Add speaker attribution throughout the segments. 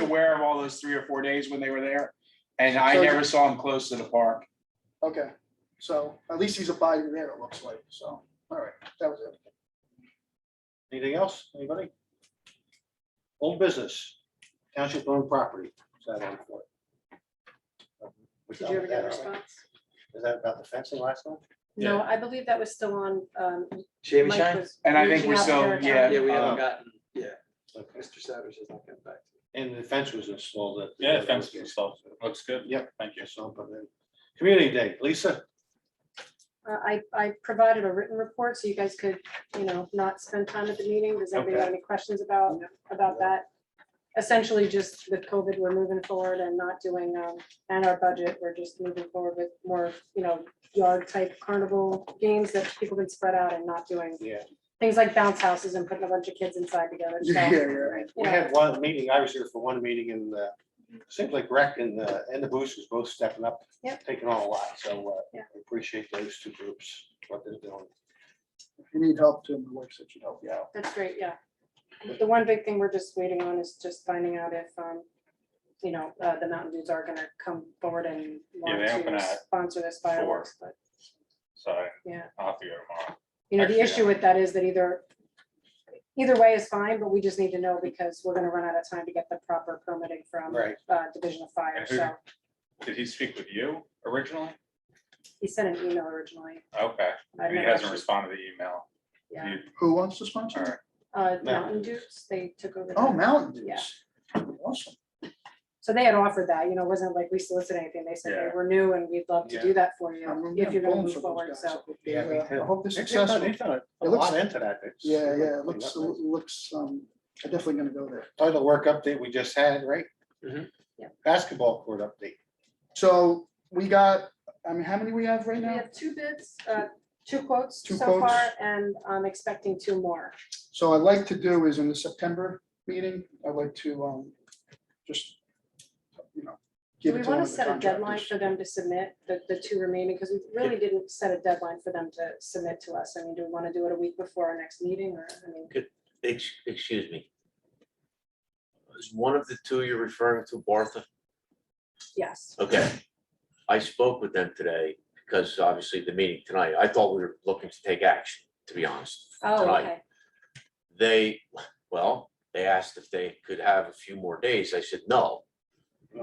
Speaker 1: aware of all those three or four days when they were there, and I
Speaker 2: So-
Speaker 1: never saw him close to the park.
Speaker 2: Okay, so at least he's abiding there, it looks like, so, all right, that was it.
Speaker 3: Anything else, anybody? Old business, township owned property. Is that on for it?
Speaker 4: Did you ever get a response?
Speaker 3: Is that about the fencing last night?
Speaker 4: No, I believe that was still on. um,
Speaker 5: Shaving
Speaker 4: Mike
Speaker 5: shine?
Speaker 4: was
Speaker 1: And I think
Speaker 4: reaching
Speaker 1: we're
Speaker 4: out to
Speaker 1: still-
Speaker 4: their
Speaker 1: yeah.
Speaker 4: account.
Speaker 5: Yeah, we
Speaker 3: Uh,
Speaker 5: haven't gotten, yeah,
Speaker 3: Okay.
Speaker 5: Mr. Savage has not gotten back to me.
Speaker 3: And the fence was installed. at the-
Speaker 6: Yeah, fence installed. Looks good.
Speaker 3: Yep.
Speaker 6: Thank you.
Speaker 3: Yes, so, but then, community day, Lisa,
Speaker 4: Uh, I, I provided a written report so you guys could, you know, not spend time at the meeting. Does anybody have any questions about, about that? Essentially, just with COVID, we're moving forward and not doing, um, and our budget, we're just moving forward with more, you know, yard type carnival games that people can spread out and not doing.
Speaker 3: Yeah.
Speaker 4: Things like bounce houses and putting a bunch of kids inside together. So,
Speaker 2: Yeah, yeah,
Speaker 3: we had one meeting, I was here for one meeting and uh, seems like rec and the, and the boosters both stepping up.
Speaker 4: Yep.
Speaker 3: Taking on a lot, so uh,
Speaker 4: Yeah.
Speaker 3: I appreciate those two groups, what they're doing.
Speaker 2: if you need help, Tim, the works that you help you out.
Speaker 4: That's great, yeah. The one big thing we're just waiting on is just finding out if, um, you know, uh, the Mountain Dews are gonna come forward and want
Speaker 6: Yeah, they open
Speaker 4: to
Speaker 6: at
Speaker 4: sponsor this fireworks, but,
Speaker 6: So
Speaker 4: yeah.
Speaker 6: I'll have to go tomorrow.
Speaker 4: You know, the
Speaker 6: Actually,
Speaker 4: issue with that is that either, either way is fine, but we just need to know because we're gonna run out of time to get the proper permitting from,
Speaker 3: Right.
Speaker 4: uh, Division of Fire,
Speaker 6: And who-
Speaker 4: so
Speaker 6: Did he speak with you originally?
Speaker 4: he sent an email originally.
Speaker 6: Okay,
Speaker 4: I never
Speaker 6: he hasn't
Speaker 4: actually-
Speaker 6: responded to the email.
Speaker 4: Yeah,
Speaker 6: You-
Speaker 2: Who wants to
Speaker 6: all
Speaker 2: sponsor?
Speaker 6: right.
Speaker 4: uh,
Speaker 3: Mountain
Speaker 4: Mountain Dews, they took over.
Speaker 2: Oh,
Speaker 4: the-
Speaker 2: Mountain
Speaker 4: Yeah.
Speaker 2: Dews. Awesome.
Speaker 4: So they had offered that, you know, it wasn't like we solicited anything. They said, hey,
Speaker 6: Yeah.
Speaker 4: we're new and we'd love to do that for you if you're gonna move forward. So
Speaker 3: Yeah, me too.
Speaker 2: I uh, hope they're
Speaker 3: They've done-
Speaker 2: successful.
Speaker 3: they've done A
Speaker 2: It
Speaker 3: a
Speaker 2: looks-
Speaker 3: lot into that. It's-
Speaker 2: Yeah, yeah, it
Speaker 3: it's
Speaker 2: looks,
Speaker 3: not nice.
Speaker 2: it looks, um, I'm definitely gonna go there.
Speaker 3: Title work update we just had, right?
Speaker 5: Mhm.
Speaker 4: Yeah.
Speaker 3: Basketball court update.
Speaker 2: So we got, I mean, how many we have right
Speaker 4: we
Speaker 2: now?
Speaker 4: have two bids, uh, two quotes
Speaker 2: Two
Speaker 4: so
Speaker 2: quotes.
Speaker 4: far, and I'm expecting two more.
Speaker 2: So I'd like to do is in the September meeting, I'd like to, um, just, you know.
Speaker 4: Do
Speaker 2: give
Speaker 4: we
Speaker 2: it to
Speaker 4: want
Speaker 2: one
Speaker 4: to
Speaker 2: of the
Speaker 4: set a deadline
Speaker 2: contractors.
Speaker 4: for them to submit the, the two remaining? Because we really didn't set a deadline for them to submit to us. I mean, do we want to do it a week before our next meeting or, I mean,
Speaker 7: Ex- Excuse me. Is one of the two you're referring to Bartha?
Speaker 4: yes.
Speaker 7: Okay. I spoke with them today because obviously the meeting tonight, I thought we were looking to take action, to be honest.
Speaker 4: Oh,
Speaker 7: tonight.
Speaker 4: okay.
Speaker 7: They, well, they asked if they could have a few more days. I said, no.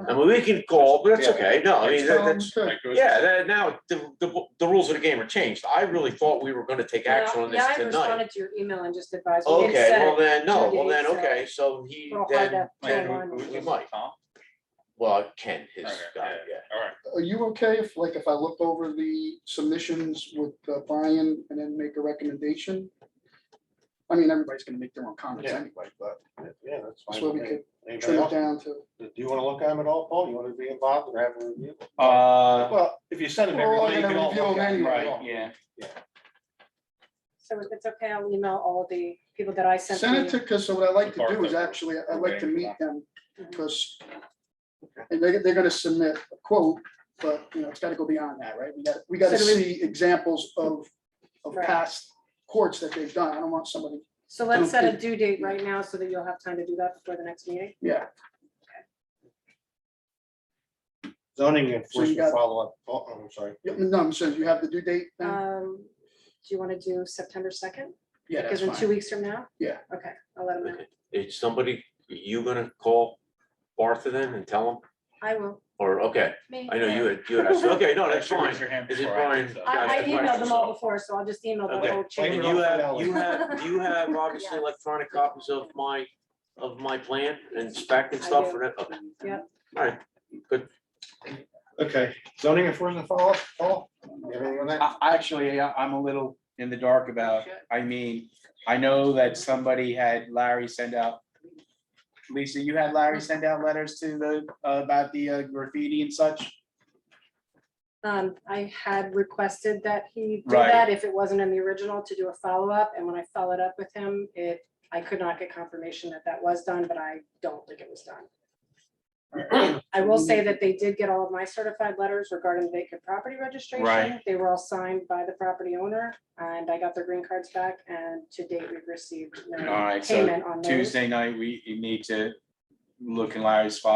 Speaker 7: I mean, we can call, but that's
Speaker 3: Yeah.
Speaker 7: okay. No, I mean, that- that's,
Speaker 2: Um,
Speaker 6: Like, it was-
Speaker 7: yeah, that- now the, the, the rules of the game are changed. I really thought we were gonna take
Speaker 4: Yeah,
Speaker 7: action on this
Speaker 4: yeah, I
Speaker 7: tonight.
Speaker 4: responded to your email and just advised. we didn't
Speaker 7: Okay,
Speaker 4: set
Speaker 7: well
Speaker 4: it.
Speaker 7: then, no,
Speaker 4: two
Speaker 7: well then,
Speaker 4: days, so
Speaker 7: okay, so he
Speaker 4: uh, We'll find
Speaker 7: then,
Speaker 4: out
Speaker 6: Wait, who-
Speaker 4: timeline.
Speaker 6: who was
Speaker 7: We
Speaker 6: it?
Speaker 7: might.
Speaker 6: Tom?
Speaker 7: well, Ken, his
Speaker 6: Okay,
Speaker 7: guy,
Speaker 6: yeah.
Speaker 7: yeah.
Speaker 6: All right.
Speaker 2: Are you okay if, like, if I look over the submissions with uh, Brian and then make a recommendation? I mean, everybody's gonna make their own comments
Speaker 3: Yeah.
Speaker 2: anyway, but
Speaker 3: Yeah, that's fine.
Speaker 2: That's what
Speaker 3: with
Speaker 2: we
Speaker 3: me.
Speaker 2: could
Speaker 3: Anybody
Speaker 2: trim it
Speaker 3: else?
Speaker 2: down to,
Speaker 3: Do you want to look at them at all, Paul? You want to be involved or have a review?
Speaker 1: Uh,
Speaker 3: Well, if you send them
Speaker 2: We're all
Speaker 3: everything, you
Speaker 2: gonna
Speaker 3: can all
Speaker 2: review
Speaker 3: look
Speaker 2: them
Speaker 3: at it.
Speaker 2: anyway.
Speaker 1: right, yeah.
Speaker 4: So if it's okay, I'll email all the people that I sent.
Speaker 2: send it
Speaker 4: you.
Speaker 2: to, because so what I like to do is
Speaker 6: Barcode.
Speaker 2: actually, I'd like to meet them,
Speaker 4: Mhm.
Speaker 2: because and they, they're gonna submit a quote, but, you know, it's gotta go beyond that, right? We gotta, we gotta
Speaker 4: So do we-
Speaker 2: see examples of, of
Speaker 4: Right.
Speaker 2: past courts that they've done. I don't want somebody,
Speaker 4: So let's set a due date right now so that you'll have time to do that before the next meeting.
Speaker 2: yeah,
Speaker 3: Zoning
Speaker 2: So you got-
Speaker 3: enforcement follow-up. Oh, I'm sorry.
Speaker 2: Yeah, no, I'm saying, you have the due date then?
Speaker 4: Um, do you want to do September second?
Speaker 2: Yeah, that's
Speaker 4: Because in two
Speaker 2: fine.
Speaker 4: weeks from now?
Speaker 2: Yeah.
Speaker 4: Okay, I'll let them know.
Speaker 7: Okay. Is somebody, you gonna call Arthur then and tell him?
Speaker 4: I will.
Speaker 7: Or, okay,
Speaker 4: Me.
Speaker 7: I know you had, you had, asked- okay, no, that's
Speaker 6: Actually,
Speaker 7: fine.
Speaker 6: raise your hand
Speaker 7: Is it
Speaker 6: before I
Speaker 7: Brian?
Speaker 6: answer.
Speaker 7: Yeah,
Speaker 4: I, I
Speaker 7: that's fine.
Speaker 4: emailed them all before, so I'll just email the
Speaker 7: Okay.
Speaker 4: whole
Speaker 3: Thank
Speaker 4: chain.
Speaker 7: And you have,
Speaker 3: Alex.
Speaker 7: you have, do you have obviously electronic copies of my, of my plan and spec and
Speaker 4: I
Speaker 7: stuff
Speaker 4: do.
Speaker 7: for that? Okay.
Speaker 4: Yeah.
Speaker 7: All right,
Speaker 3: Okay, zoning enforcement follow-up, Paul? You have anything on that?
Speaker 1: I, actually, I- I'm a little in the dark about, I mean, I know that somebody had Larry send out. Lisa, you had Larry send out letters to the, about the uh, graffiti and such?
Speaker 4: Um, I had requested that he do
Speaker 1: Right.
Speaker 4: that if it wasn't in the original to do a follow-up, and when I followed up with him, it, I could not get confirmation that that was done, but I don't think it was done. I will say that they did get all of my certified letters regarding vacant property registration.
Speaker 1: Right.
Speaker 4: They were all signed by the property owner, and I got their green cards back, and to date, we've received
Speaker 1: All
Speaker 4: no
Speaker 1: right, so
Speaker 4: payment on those.
Speaker 1: Tuesday night, we you need to look in Larry's file